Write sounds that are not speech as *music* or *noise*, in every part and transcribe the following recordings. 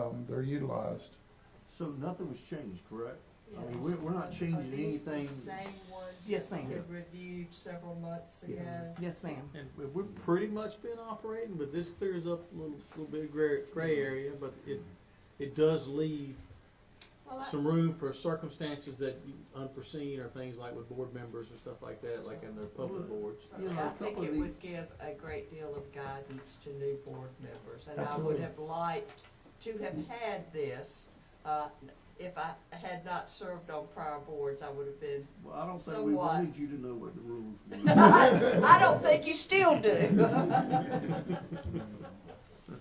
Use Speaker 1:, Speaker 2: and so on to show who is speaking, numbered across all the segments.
Speaker 1: um, they're utilized.
Speaker 2: So nothing was changed, correct? I mean, we're, we're not changing
Speaker 3: Are
Speaker 2: anything.
Speaker 3: these the same ones?
Speaker 4: Yes,
Speaker 3: that we
Speaker 4: ma'am.
Speaker 3: had Reviewed several months
Speaker 2: Yeah.
Speaker 3: ago?
Speaker 4: Yes, ma'am.
Speaker 5: And we- we've pretty much been operating, but this clears up a little, little bit of gray, gray area, but it, it does leave
Speaker 3: Well, I-
Speaker 5: some room for circumstances that you- unforeseen or things like with board members and stuff like that, like in their public boards.
Speaker 2: you know,
Speaker 3: I
Speaker 2: a
Speaker 3: think
Speaker 2: couple of
Speaker 3: it
Speaker 2: the-
Speaker 3: would give a great deal of guidance to new board members, and I would
Speaker 2: Absolutely.
Speaker 3: have liked to have had this. uh, If I had not served on prior boards, I would have been,
Speaker 2: Well, I don't think
Speaker 3: So
Speaker 2: we
Speaker 3: what?
Speaker 2: wanted you to know what the rules
Speaker 3: *laughs*
Speaker 2: were.
Speaker 3: I don't think you
Speaker 2: *laughs*
Speaker 3: still do.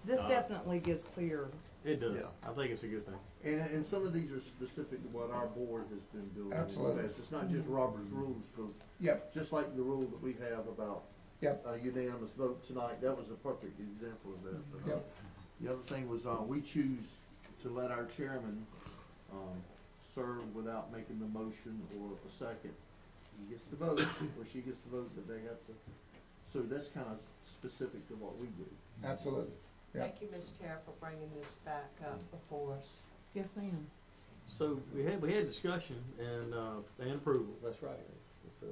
Speaker 4: This
Speaker 5: Uh,
Speaker 4: definitely gives clear,
Speaker 5: It does.
Speaker 2: Yeah.
Speaker 5: I think it's a good thing.
Speaker 2: And, and some of these are specific to what our board has been doing. in the
Speaker 1: Absolutely.
Speaker 2: past. It's not just Robert's rules, 'cause
Speaker 1: Yep,
Speaker 2: just like the rule that we have about
Speaker 1: yep,
Speaker 2: a unanimous vote tonight, that was a perfect example of that. But, uh,
Speaker 1: Yep.
Speaker 2: The other thing was, uh, we choose to let our chairman, um, serve without making the motion or a second. He gets the vote, or she gets the vote, but they have to, so that's kind of specific to what we do.
Speaker 1: absolutely. Yep.
Speaker 3: Thank you, Ms. Tara, for bringing this back up before us.
Speaker 4: yes, ma'am.
Speaker 5: So we had, we had discussion and, uh, and approval. That's right. So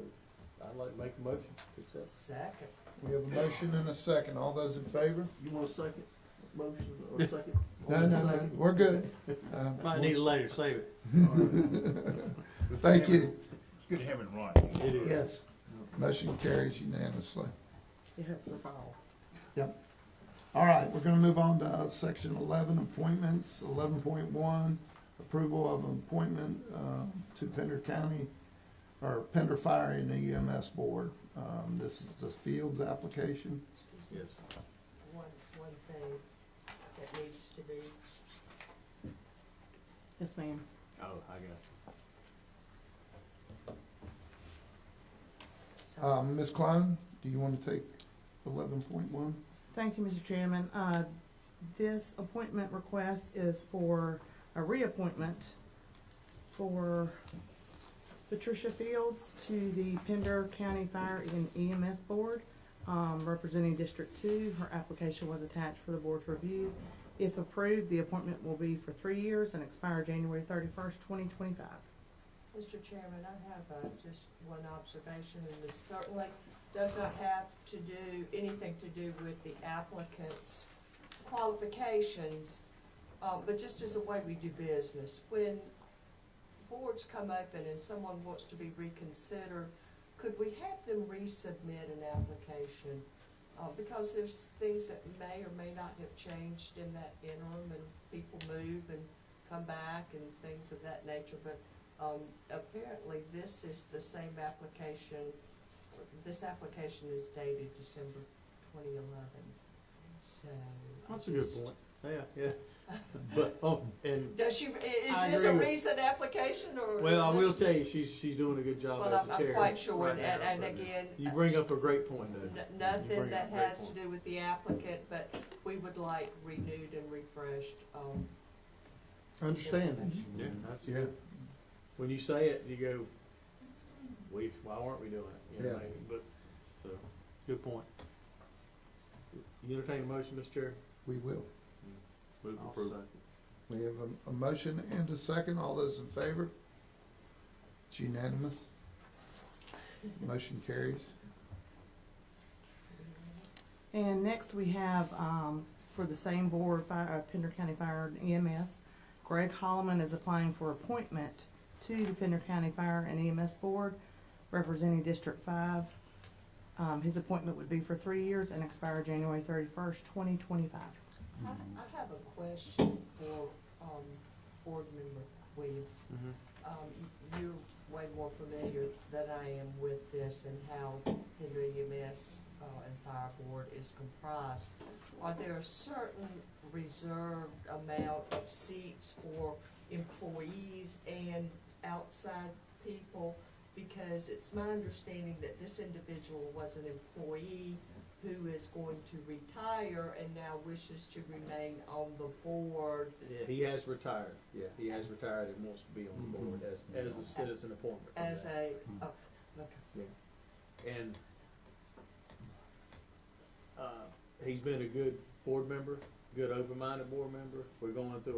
Speaker 5: I'd like to make a motion to accept.
Speaker 3: Second.
Speaker 1: We have a motion and a second. All those in favor?
Speaker 2: You want a second motion or a second?
Speaker 1: No, no, no,
Speaker 2: Second?
Speaker 1: we're good. Uh,
Speaker 5: Might need it later, save it.
Speaker 1: Thank you.
Speaker 6: It's good to have it in writing.
Speaker 5: It is.
Speaker 1: Yes. Motion carries unanimously.
Speaker 4: It helps us all.
Speaker 1: Yep. All right, we're gonna move on to uh, section eleven, appointments, eleven point one, approval of appointment, uh, to Pender County, or Pender Fire and EMS Board. Um, this is the Fields application.
Speaker 3: Excuse me.
Speaker 5: Yes.
Speaker 3: One, one thing that needs to be
Speaker 4: Yes, ma'am.
Speaker 5: Oh, I got you.
Speaker 2: Uh,
Speaker 1: Um, Ms. Klein, do you wanna take eleven point one?
Speaker 4: Thank you, Mr. Chairman. Uh, This appointment request is for a reappointment for Patricia Fields to the Pender County Fire and EMS Board, um, representing District Two. Her application was attached for the board's review. If approved, the appointment will be for three years and expire January thirty-first, twenty twenty-five.
Speaker 3: Mr. Chairman, I have uh, just one observation, and this certainly does not have to do, anything to do with the applicant's qualifications, uh, but just as a way we do business. When boards come open and someone wants to be reconsidered, could we have them resubmit an application? Uh, Because there's things that may or may not have changed in that interim, and people move and come back and things of that nature, but um, apparently this is the same application, this application is dated December twenty eleven, so. I
Speaker 5: That's a good
Speaker 3: just-
Speaker 5: point. Yeah, yeah. But, oh, and
Speaker 3: Does she, i- is
Speaker 5: I
Speaker 3: this a
Speaker 5: agree with-
Speaker 3: recent application or?
Speaker 5: Well, I
Speaker 3: does
Speaker 5: will
Speaker 3: she-
Speaker 5: tell you, she's, she's doing a good job
Speaker 3: Well,
Speaker 5: as
Speaker 3: I'm,
Speaker 5: the
Speaker 3: I'm
Speaker 5: chair.
Speaker 3: quite sure,
Speaker 5: right
Speaker 3: and, and
Speaker 5: now,
Speaker 3: and
Speaker 5: but
Speaker 3: again.
Speaker 5: You
Speaker 3: uh,
Speaker 5: bring up a great point,
Speaker 3: n-
Speaker 5: though. You
Speaker 3: Nothing
Speaker 5: bring up
Speaker 3: that
Speaker 5: a great
Speaker 3: has to
Speaker 5: point.
Speaker 3: do with the applicant, but we would like renewed and refreshed, um.
Speaker 2: Mm-hmm.
Speaker 1: Understand.
Speaker 3: information.
Speaker 5: Yeah, that's,
Speaker 1: Yeah,
Speaker 5: when you say it, you go, we, why aren't we doing it? You know,
Speaker 1: Yeah.
Speaker 5: maybe, But, so, good point. You entertain a motion, Mr. Chair?
Speaker 1: we will.
Speaker 5: Move
Speaker 2: I'll
Speaker 5: approval.
Speaker 2: second.
Speaker 1: We have a, a motion and a second. All those in favor? It's unanimous. Motion carries.
Speaker 4: And next we have, um, for the same board, Fire, uh, Pender County Fire and EMS, Greg Holloman is applying for appointment to the Pender County Fire and EMS Board, representing District Five. Um, his appointment would be for three years and expire January thirty-first, twenty twenty-five.
Speaker 3: I, I have a question for, um, board member Williams.
Speaker 5: Mhm.
Speaker 3: Um, you're way more familiar than I am with this and how Henry EMS, uh, and Fire Board is comprised. Are there a certain reserved amount of seats for employees and outside people? Because it's my understanding that this individual was an employee who is going to retire and now wishes to remain on the board.
Speaker 5: Yeah, he has retired, yeah, Mm-hmm. he has retired and wants to be on the board as, as a citizen appointment. from
Speaker 3: As
Speaker 5: that.
Speaker 3: a, oh, okay.
Speaker 5: And, uh, he's been a good board member, good open-minded board member. We're going through